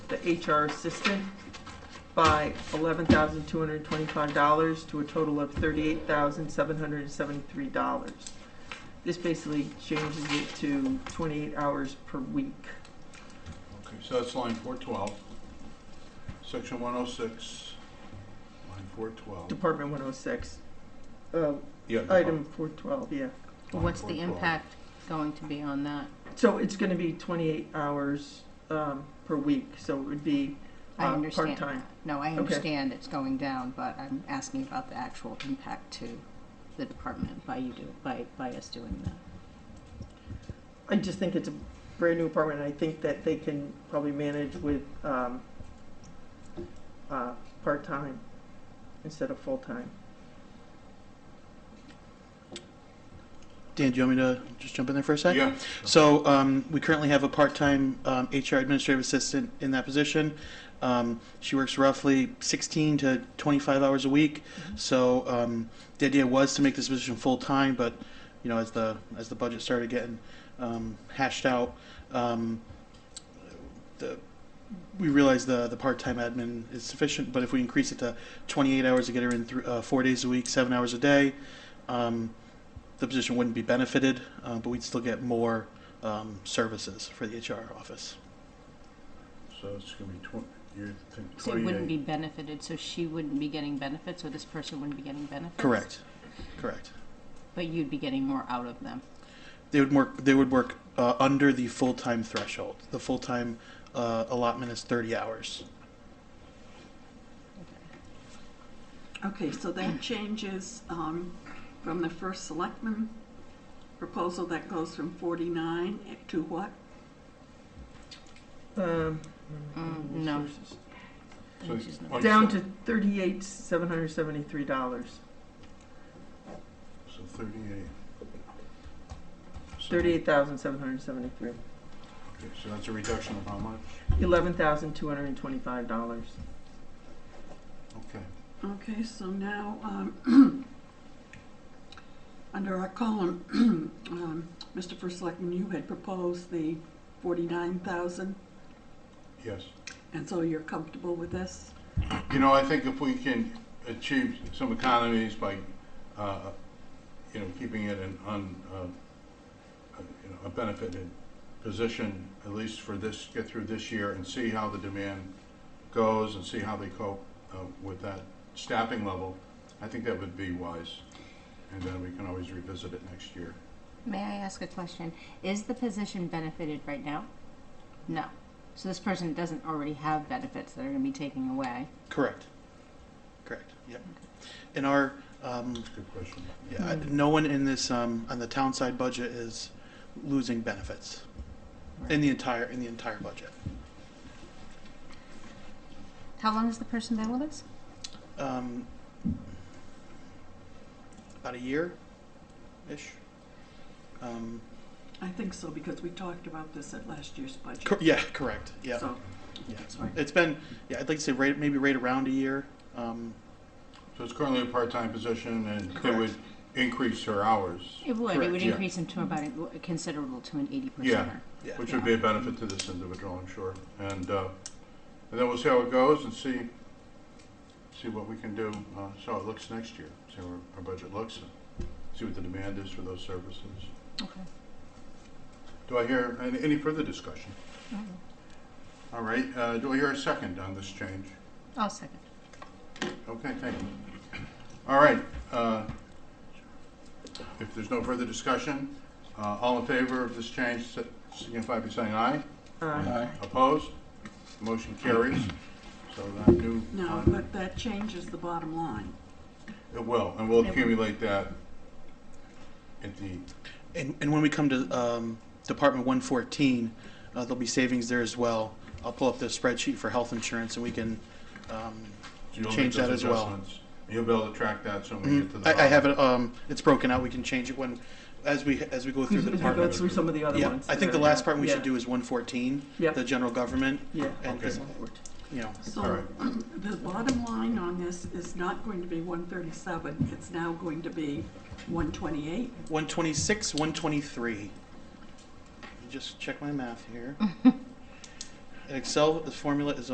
the HR assistant by eleven thousand two hundred twenty-five dollars to a total of thirty-eight thousand seven hundred seventy-three dollars. This basically changes it to twenty-eight hours per week. Okay, so that's line four twelve, section one oh six, line four twelve. Department one oh six, uh, Yeah. item four twelve, yeah. line What's the 412. impact going to be on that? So it's gonna be twenty-eight hours, um, per week, so it would be, I Uh, understand part-time. that. No, I understand it's going down, but I'm asking about the actual impact to the department by you do, by, by us doing that. I just think it's a brand-new apartment, and I think that they can probably manage with, um, uh, part-time instead of full-time. Dan, do you want me to just jump in there for a sec? Yeah, So um, we currently have a part-time um, HR administrative assistant in that position. Um, she works roughly 16 to 25 hours a week. So um, the idea was to make this position full-time, but you know, as the as the budget started getting um, hashed out, um, the we realized the the part-time admin is sufficient. But if we increase it to 28 hours to get her in thr uh, four days a week, seven hours a day. Um, the position wouldn't be benefited, uh, but we'd still get more um, services for the HR office. so it's gonna be twen- you're thinking So it wouldn't be twenty-eight. benefited, so she wouldn't be getting benefits, or this person wouldn't be getting benefits? Correct, correct. But you'd be getting more out of them. They would work. They would work uh, under the full time threshold. The full time uh, allotment is 30 hours. Okay, so that changes um, from the first selectman proposal that goes from 49 to what? Um, Mm, no. resources. So Which is not- twenty- Down to thirty-eight, seven hundred seventy-three dollars, So thirty-eight. So- thirty-eight thousand seven hundred seventy-three, Okay, so that's a reduction of how much? eleven thousand two hundred twenty-five dollars. Okay, Okay, so now, um, under our column, um, Mr. First Selectman, you had proposed the 49,000, yes. and so you're comfortable with this? You know, I think if we can achieve some economies by, uh, you know, keeping it an un, uh, a- you know, a benefited position, at least for this, get through this year and see how the demand goes and see how they cope uh, with that staffing level, I think that would be wise. And then we can always revisit it next year. May I ask a question? Is the position benefited right now? No. So this person doesn't already have benefits that are gonna be taken away. Correct, correct. Yep. And our um, Good question. yeah, I- no one in this um, on the town side budget is losing benefits in the entire in the entire budget. How long has the person been with us? um, about a year ish. Um, I think so, because we talked about this at last year's budget. cor- yeah, correct. Yeah, So, yeah. sorry. It's been yeah. I'd like to say right, maybe right around a year. Um, So it's currently a part-time position and it would increase her hours, It would, it Correct, would yeah. increase them to about, a- considerable to an eighty Yeah. percent. yeah. which would be a benefit to this individual, I'm sure. And, uh, and then we'll see how it goes and see, see what we can do, uh, see how it looks next year, see how our, our budget looks, and see what the demand is for those services. Okay. Do I hear, any, any further discussion? Mhm. All right, uh, do I hear a second on this change? I'll second. Okay, thank you. All right, uh, if there's no further discussion, uh, all in favor of this change signify by saying aye. Uh, Opposed? Motion carries. So that new, No, but that changes the bottom line. it will, and we'll accumulate that at the, And, and when we come to um, Department 114, uh, there'll be savings there as well. I'll pull up the spreadsheet for health insurance, and we can. Um, you'll make Change that those as well. adjustments. You'll be able to track that so when we get to mhm. the. I, I have bottom. it. Um, it's broken out. We can change it when, as we as we go through As the we go department. through some of the other Yeah, ones. I think the that are- last part we yeah, should do is 114, Yeah. the general government, Yeah. and Okay. you know. All So right. the bottom line on this is not going to be 137, it's now going to be 128. 126, 123. Just check my math here. An Excel formula is